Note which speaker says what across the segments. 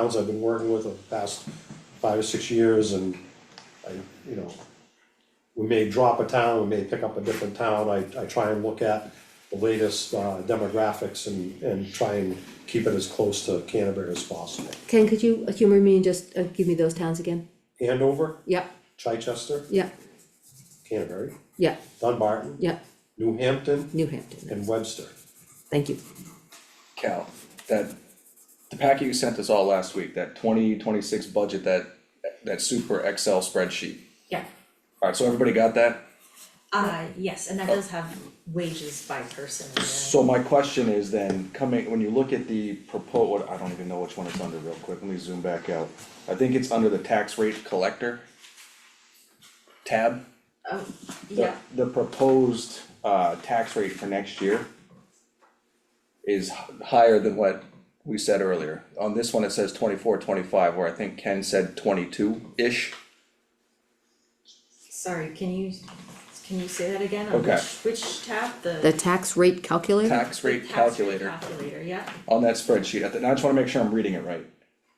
Speaker 1: towns I've been working with over the past five or six years and I, you know, we may drop a town, we may pick up a different town, I, I try and look at the latest uh, demographics and, and try and keep it as close to Canterbury as possible.
Speaker 2: Ken, could you humor me and just uh, give me those towns again?
Speaker 1: Andover,
Speaker 2: Yep,
Speaker 1: Chichester,
Speaker 2: yep,
Speaker 1: Canterbury,
Speaker 2: yep,
Speaker 1: Dunbarton,
Speaker 2: yep,
Speaker 1: New Hampton,
Speaker 2: New Hampton,
Speaker 1: and Webster.
Speaker 2: thank you.
Speaker 3: Cal, that, the packet you sent us all last week, that twenty twenty-six budget, that, that super Excel spreadsheet.
Speaker 4: Yeah,
Speaker 3: Alright, so everybody got that?
Speaker 4: uh, yes, and that does have wages by person in there.
Speaker 3: Oh. So my question is then, coming, when you look at the propos, what, I don't even know which one it's under real quick, let me zoom back out. I think it's under the tax rate collector tab.
Speaker 4: Oh,
Speaker 3: the-
Speaker 4: yeah,
Speaker 3: The proposed uh tax rate for next year is h- higher than what we said earlier. On this one, it says twenty-four, twenty-five, where I think Ken said twenty-two-ish.
Speaker 4: sorry, can you, can you say that again? On
Speaker 3: Okay.
Speaker 4: which- Which tab,
Speaker 2: The
Speaker 4: the
Speaker 2: tax rate calculator?
Speaker 3: Tax rate
Speaker 4: tax rate
Speaker 3: calculator
Speaker 4: calculator, yeah,
Speaker 3: on that spreadsheet, I thi- I just wanna make sure I'm reading it right.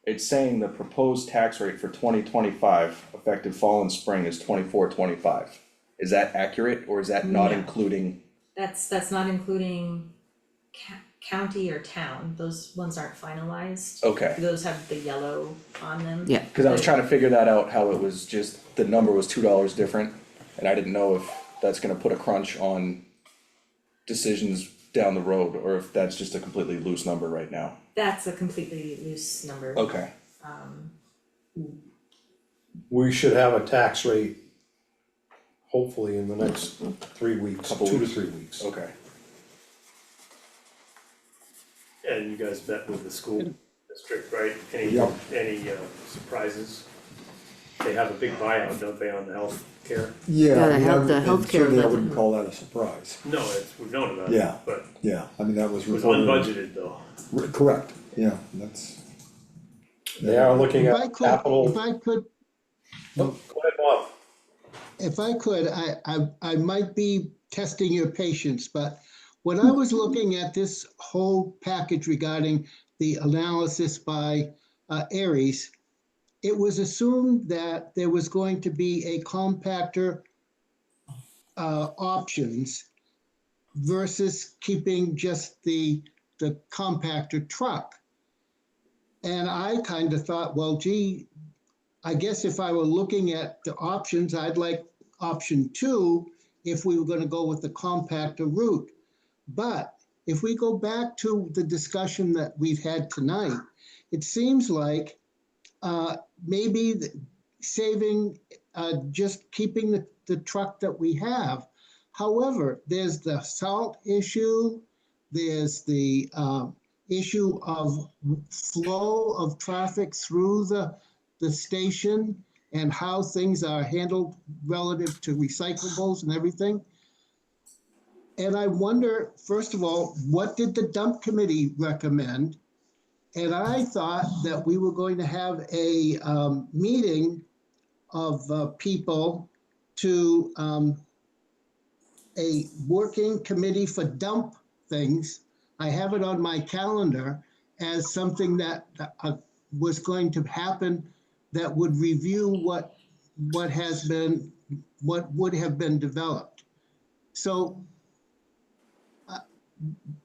Speaker 3: It's saying the proposed tax rate for twenty twenty-five, effective fall and spring, is twenty-four, twenty-five. Is that accurate, or is that not
Speaker 4: No.
Speaker 3: including,
Speaker 4: that's, that's not including ca- county or town, those ones aren't finalized.
Speaker 3: okay?
Speaker 4: Those have the yellow on them.
Speaker 2: Yeah.
Speaker 3: Cause I was trying to figure that out, how it was just, the number was two dollars different, and I didn't know if that's gonna put a crunch on decisions down the road, or if that's just a completely loose number right now.
Speaker 4: That's a completely loose number.
Speaker 3: Okay,
Speaker 1: We should have a tax rate hopefully in the next three weeks,
Speaker 3: Couple
Speaker 1: two to
Speaker 3: weeks.
Speaker 1: three weeks.
Speaker 3: okay,
Speaker 5: And you guys met with the school district, right? Any,
Speaker 3: Yep.
Speaker 5: any uh, surprises? They have a big buyout, don't they, on the healthcare?
Speaker 2: Yeah,
Speaker 6: Yeah,
Speaker 2: the
Speaker 6: we
Speaker 2: health- the
Speaker 6: haven't-
Speaker 2: healthcare
Speaker 6: and certainly I
Speaker 2: budget.
Speaker 6: wouldn't call that a surprise,
Speaker 5: No, it's, we've known about it,
Speaker 6: Yeah.
Speaker 5: but
Speaker 6: yeah, I mean, that was
Speaker 5: it was
Speaker 6: reported.
Speaker 5: unbudgeted though.
Speaker 6: Re- Correct, yeah, that's,
Speaker 1: They are looking
Speaker 7: If I
Speaker 1: at
Speaker 7: could,
Speaker 1: capital.
Speaker 7: if I could,
Speaker 1: Go ahead, Bob.
Speaker 7: if I could, I, I, I might be testing your patience, but when I was looking at this whole package regarding the analysis by uh, Ares, it was assumed that there was going to be a compactor uh, options versus keeping just the, the compactor truck. And I kind of thought, well, gee, I guess if I were looking at the options, I'd like option two if we were gonna go with the compactor route. But if we go back to the discussion that we've had tonight, it seems like uh, maybe the- saving, uh, just keeping the, the truck that we have. However, there's the salt issue, there's the um, issue of flow of traffic through the, the station and how things are handled relative to recyclables and everything. And I wonder, first of all, what did the dump committee recommend? And I thought that we were going to have a um, meeting of uh, people to um, a working committee for dump things. I have it on my calendar as something that uh, was going to happen that would review what, what has been, what would have been developed. So uh,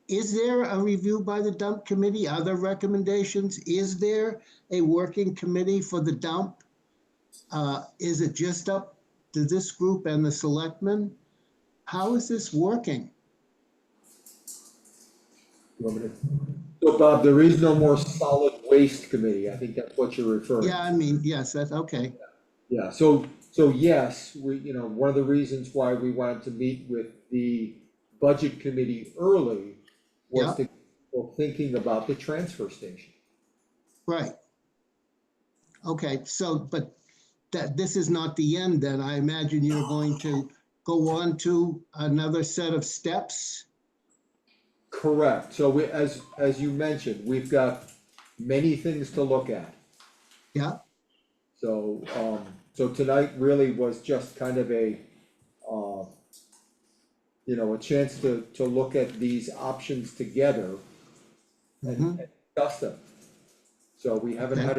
Speaker 7: is there a review by the dump committee? Other recommendations? Is there a working committee for the dump? Uh, Is it just up to this group and the selectmen? How is this working?
Speaker 6: you want me to? So Bob, there is no more solid waste committee, I think that's what you're referring.
Speaker 7: Yeah, I mean, yes, that's okay.
Speaker 6: Yeah, so, so yes, we, you know, one of the reasons why we wanted to meet with the budget committee early was to, well, thinking about the transfer station.
Speaker 7: Right. Okay, so, but that, this is not the end then. I imagine you're going to go on to another set of steps?
Speaker 6: Correct, so we, as, as you mentioned, we've got many things to look at.
Speaker 7: Yeah,
Speaker 6: So, um, so tonight really was just kind of a, uh, you know, a chance to, to
Speaker 7: Mm-hmm.
Speaker 6: look at these options together and and discuss them. So we haven't had